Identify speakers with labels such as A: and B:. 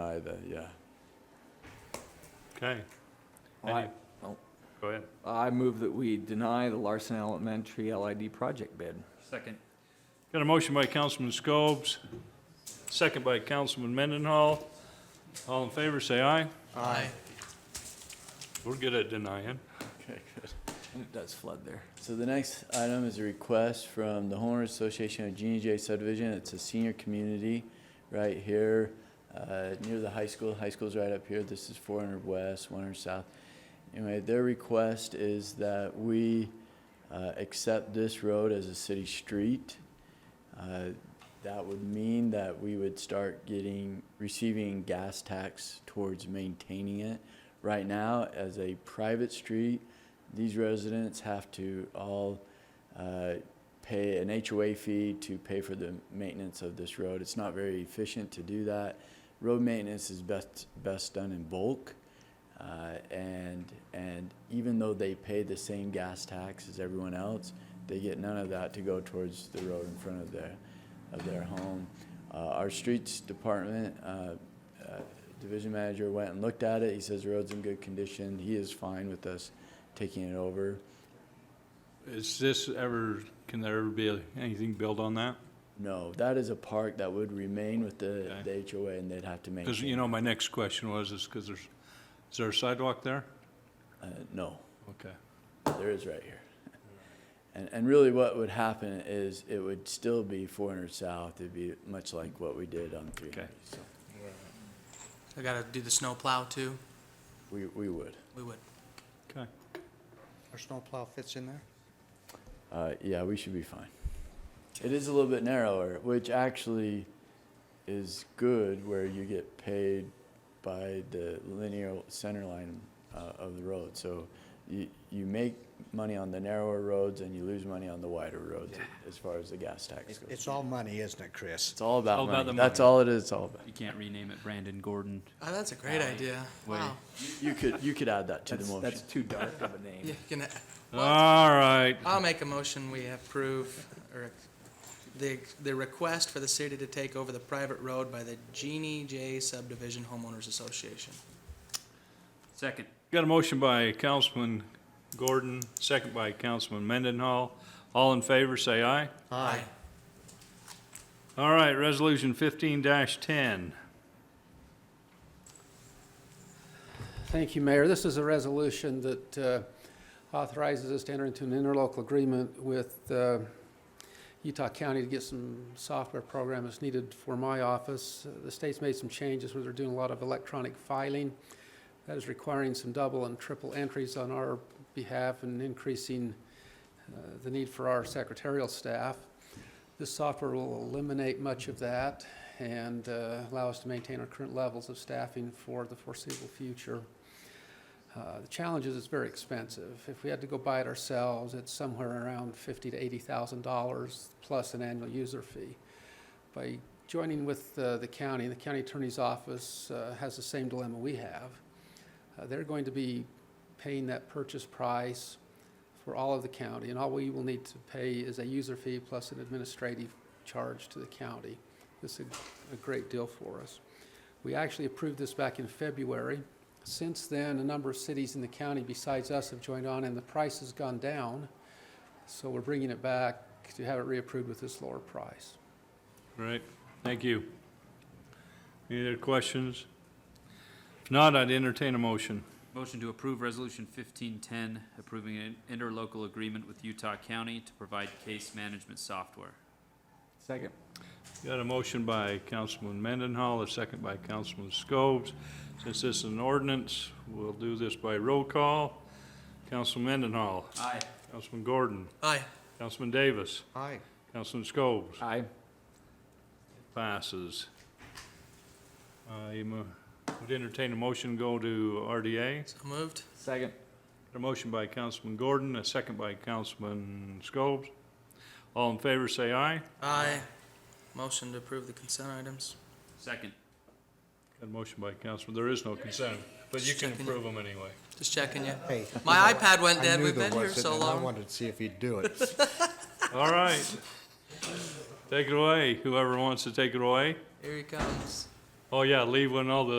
A: Neither, yeah.
B: Okay,
C: I,
B: go ahead.
C: I move that we deny the Larson Elementary LID project bid.
D: Second.
B: Got a motion by Councilman Scobes, second by Councilman Mendenhall. All in favor, say aye.
D: Aye.
B: We're good at denying.
A: Okay, good.
C: And it does flood there.
A: So the next item is a request from the homeowners association of Genie J subdivision. It's a senior community right here, uh, near the high school. High school's right up here. This is four hundred west, one hundred south. Anyway, their request is that we, uh, accept this road as a city street. Uh, That would mean that we would start getting, receiving gas tax towards maintaining it. Right now, as a private street, these residents have to all uh, pay an HOA fee to pay for the maintenance of this road. It's not very efficient to do that. Road maintenance is best, best done in bulk. Uh, And, and even though they pay the same gas tax as everyone else, they get none of that to go towards the road in front of their, of their home. Uh, Our streets department, uh, uh, division manager went and looked at it. He says the road's in good condition. He is fine with us taking it over.
B: Is this ever, can there ever be anything built on that?
A: No, that is a park that would remain with the,
B: Okay.
A: the HOA and they'd have to maintain.
B: Because, you know, my next question was, is because there's, is there a sidewalk there?
A: Uh, no,
B: Okay.
A: there is right here. And, and really what would happen is it would still be four hundred south. It'd be much like what we did on three
B: Okay.
A: ninety, so
D: I gotta do the snow plow too.
A: we, we would.
D: We would.
B: Okay.
E: Our snowplow fits in there?
A: Uh, yeah, we should be fine. It is a little bit narrower, which actually is good where you get paid by the linear center line uh, of the road. So you, you make money on the narrower roads and you lose money on the wider roads as far as the gas tax
E: It's-
A: goes.
E: It's all money, isn't it, Chris?
A: It's all about
B: all about
A: money.
B: the
A: That's
B: money.
A: all it is, it's all about.
F: You can't rename it Brandon Gordon.
D: Oh, that's a great idea.
F: Wait.
D: Wow.
A: You could, you could add that to the
C: That's,
A: motion.
C: that's too dark of a name.
D: Yeah, you can,
B: All right,
D: I'll make a motion we approve or the, the request for the city to take over the private road by the Genie J Subdivision Homeowners Association.
F: Second.
B: got a motion by Councilman Gordon, second by Councilman Mendenhall. All in favor, say aye.
D: Aye.
B: All right, resolution fifteen ten.
G: Thank you, Mayor. This is a resolution that uh, authorizes us to enter into an interlocal agreement with uh, Utah County to get some software program that's needed for my office. Uh, The state's made some changes where they're doing a lot of electronic filing. That is requiring some double and triple entries on our behalf and increasing uh, the need for our secretarial staff. This software will eliminate much of that and uh, allow us to maintain our current levels of staffing for the foreseeable future. Uh, The challenge is it's very expensive. If we had to go buy it ourselves, it's somewhere around fifty to eighty thousand dollars plus an annual user fee. By joining with uh, the county, the county attorney's office uh, has the same dilemma we have. Uh, They're going to be paying that purchase price for all of the county, and all we will need to pay is a user fee plus an administrative charge to the county. This is a- a great deal for us. We actually approved this back in February. Since then, a number of cities in the county besides us have joined on, and the price has gone down. So we're bringing it back to have it reapproved with this lower price.
B: Right, thank you. Any other questions? If not, I'd entertain a motion.
F: Motion to approve Resolution 1510, approving an interlocal agreement with Utah County to provide case management software.
C: Second.
B: Got a motion by Councilman Mendenhall, a second by Councilman Scobes. Since this is an ordinance, we'll do this by roll call. Councilman Mendenhall,
F: Aye.
B: Councilman Gordon,
D: Aye.
B: Councilman Davis,
E: Aye.
B: Councilman Scobes,
C: Aye.
B: passes. I mo- would entertain a motion, go to RDA.
D: So moved.
C: Second.
B: A motion by Councilman Gordon, a second by Councilman Scobes. All in favor, say aye.
D: Aye. Motion to approve the consent items.
F: Second.
B: Got a motion by Councilman, there is no consent, but you can approve them anyway.
D: Just checking you.
E: Hey.
D: My iPad went
E: I
D: dead.
E: knew
D: We've
E: there
D: been here
E: wasn't,
D: so
E: and I
D: long.
E: wanted to see if he'd do it.
B: All right. Take it away, whoever wants to take it away.
D: Here he comes.
B: Oh, yeah, leave when all the